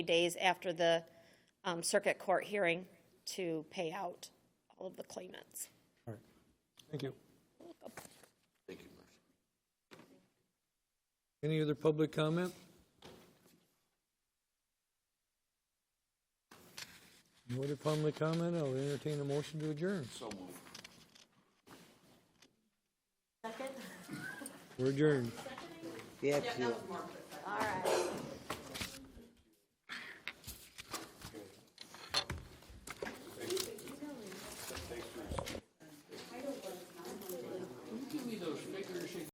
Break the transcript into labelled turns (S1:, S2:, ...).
S1: days after the um, circuit court hearing to pay out all of the claimants.
S2: All right. Thank you.
S3: Thank you, Marcia.
S2: Any other public comment? No other public comment? I'll entertain a motion to adjourn.
S3: So moved.
S2: We're adjourned.
S4: Yeah, it's you.